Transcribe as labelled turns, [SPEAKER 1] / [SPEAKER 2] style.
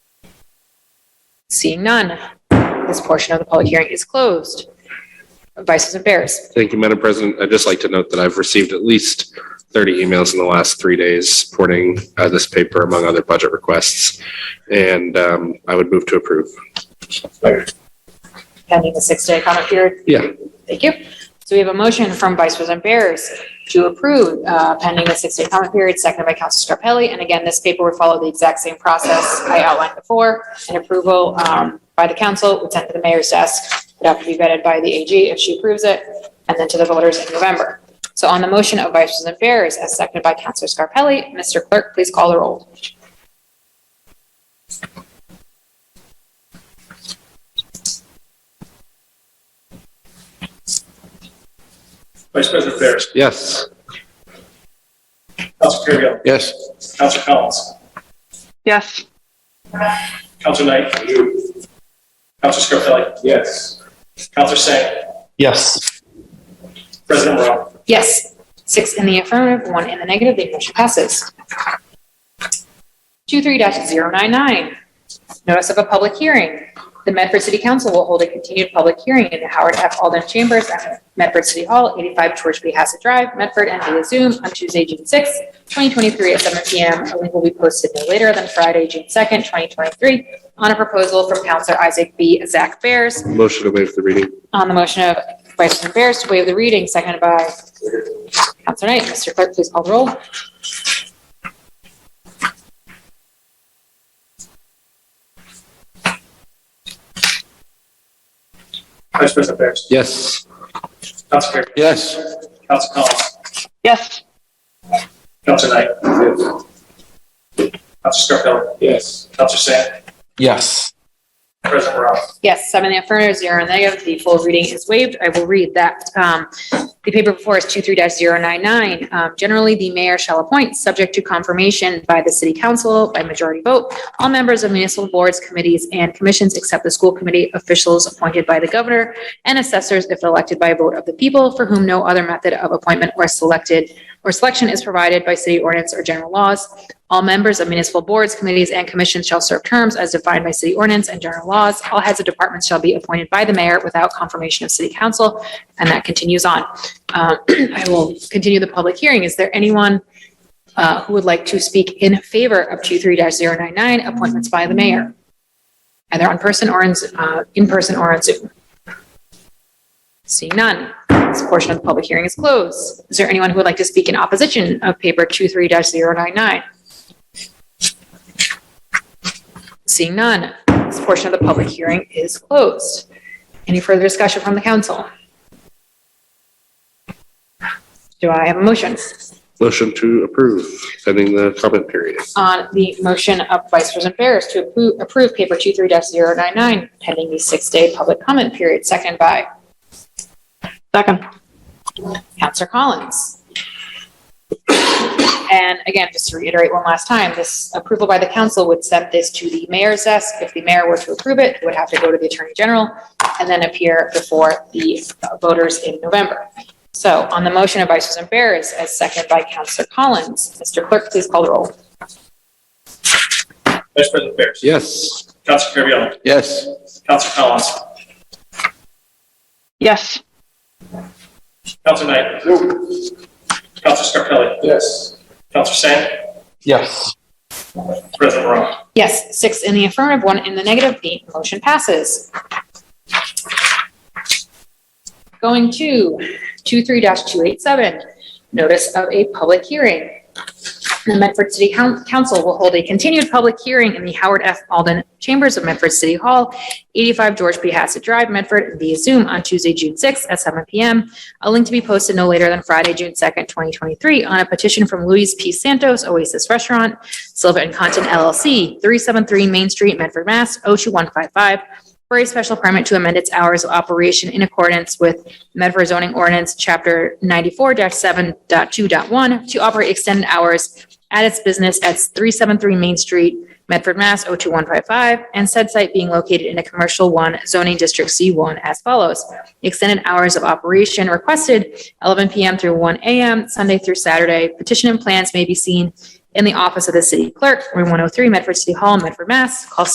[SPEAKER 1] Seeing none, this portion of the public hearing is closed. Vices and Bears.
[SPEAKER 2] Thank you, Madam President. I'd just like to note that I've received at least 30 emails in the last three days supporting uh, this paper among other budget requests. And um, I would move to approve.
[SPEAKER 1] Pending the six-day comment period.
[SPEAKER 2] Yeah.
[SPEAKER 1] Thank you. So we have a motion from Vice President Bears to approve uh, pending the six-day comment period, seconded by Council Scarpelli. And again, this paper would follow the exact same process I outlined before. An approval um, by the council would send to the mayor's desk, would have to be vetted by the AG if she approves it, and then to the voters in November. So on the motion of Vice President Bears, as seconded by Council Scarpelli, Mr. Clerk, please call the roll.
[SPEAKER 3] Vice President Ferris,
[SPEAKER 2] Yes.
[SPEAKER 3] Council Kerry,
[SPEAKER 2] Yes.
[SPEAKER 3] Council Collins,
[SPEAKER 4] Yes,
[SPEAKER 3] Council Knight. Council Scarpelli. Yes. Council Singh,
[SPEAKER 2] Yes.
[SPEAKER 3] President Morrell.
[SPEAKER 1] Yes. Six in the affirmative, one in the negative, the motion passes. 23-099, notice of a public hearing. The Medford City Council will hold a continued public hearing in the Howard F. Alden Chambers at Medford City Hall, 85 George B. Hassett Drive, Medford, and via Zoom on Tuesday, June 6th, 2023 at 7 p.m. A link will be posted no later than Friday, June 2nd, 2023, on a proposal from Counselor Isaac B. Zach Bears
[SPEAKER 2] Motion to waive the reading.
[SPEAKER 1] on the motion of Vice President Bears to waive the reading, seconded by Counselor Knight. Mr. Clerk, please call the roll.
[SPEAKER 3] Vice President Ferris,
[SPEAKER 2] Yes.
[SPEAKER 3] Council Kerry,
[SPEAKER 2] Yes.
[SPEAKER 3] Council Collins,
[SPEAKER 4] yes,
[SPEAKER 3] Council Knight. Council Scarpelli. Yes. Council Singh,
[SPEAKER 2] Yes.
[SPEAKER 3] President Morrell.
[SPEAKER 1] Yes, seven in the affirmative, zero in the negative. The full reading is waived. I will read that. Um, The paper before is 23-099. Um, Generally, the mayor shall appoint, subject to confirmation by the city council by majority vote, all members of municipal boards, committees, and commissions except the school committee officials appointed by the governor and assessors if elected by a vote of the people for whom no other method of appointment or selected or selection is provided by city ordinance or general laws. All members of municipal boards, committees, and commissions shall serve terms as defined by city ordinance and general laws. All heads of departments shall be appointed by the mayor without confirmation of city council, and that continues on. Um, I will continue the public hearing. Is there anyone uh, who would like to speak in favor of 23-099, appointments by the mayor? Either on person or in, uh, in person or on Zoom? Seeing none, this portion of the public hearing is closed. Is there anyone who would like to speak in opposition of paper 23-099? Seeing none, this portion of the public hearing is closed. Any further discussion from the council? Do I have a motion
[SPEAKER 2] Motion to approve pending the comment period.
[SPEAKER 1] on the motion of Vice President Barris to approve, approve paper 23-099 pending the six-day public comment period, seconded by
[SPEAKER 4] second,
[SPEAKER 1] Counselor Collins. And again, just to reiterate one last time, this approval by the council would send this to the mayor's desk. If the mayor were to approve it, it would have to go to the attorney general and then appear before the voters in November. So on the motion of Vice President Barris, as seconded by Counselor Collins, Mr. Clerk, please call the roll.
[SPEAKER 3] Vice President Ferris,
[SPEAKER 2] Yes.
[SPEAKER 3] Council Kerry,
[SPEAKER 2] Yes.
[SPEAKER 3] Council Collins,
[SPEAKER 4] yes,
[SPEAKER 3] Council Knight. Council Scarpelli. Yes. Council Singh,
[SPEAKER 2] Yes.
[SPEAKER 3] President Morrell.
[SPEAKER 1] Yes, six in the affirmative, one in the negative, the motion passes. Going to 23-287, notice of a public hearing. The Medford City Coun- Council will hold a continued public hearing in the Howard F. Alden Chambers of Medford City Hall, 85 George P. Hassett Drive, Medford, via Zoom on Tuesday, June 6th at 7 PM. A link to be posted no later than Friday, June 2nd, 2023, on a petition from Luis P. Santos, Oasis Restaurant, Silva and Content LLC, 373 Main Street, Medford, Mass. 02155, for a special permit to amend its hours of operation in accordance with Medford zoning ordinance, Chapter 94-7.2.1, to operate extended hours at its business at 373 Main Street, Medford, Mass. 02155, and said site being located in a Commercial 1 zoning district C1 as follows. Extended hours of operation requested 11 PM through 1 AM, Sunday through Saturday. Petition oh and plans may be seen in the office of the city clerk, room 103, Medford City Hall, Medford, Mass. Call